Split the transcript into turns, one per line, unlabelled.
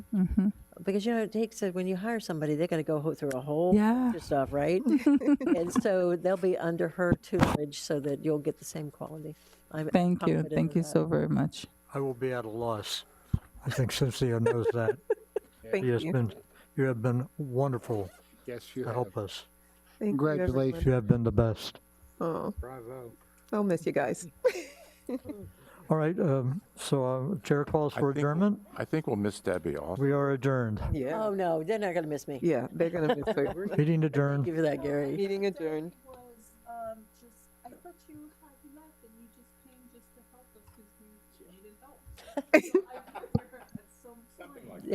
Because you know it takes a, when you hire somebody, they're going to go ho- through a whole
Yeah.
bunch of stuff, right? and so they'll be under her tutelage, so that you'll get the same quality. I'm
Thank you.
confident
Thank
of
you
that.
so very much.
I will be at a loss. I think Cynthia knows that.
Thank
She has
you.
been, you have been wonderful
Yes, you
to
have.
help us.
Thank you, everyone.
Congratulations.
You have been the best.
Oh,
Bravo.
I'll miss you guys.
All right, um, so uh, Chair calls
I
for
think-
adjournment.
I think we'll miss Debbie also.
We are adjourned.
Yeah.
Oh no, they're not going to miss me.
Yeah, they're gonna miss her.
Meeting adjourned.
Give you that, Gary.
Meeting adjourned.
was um, just, I thought you had left and you just came just to help us because you needed help. So I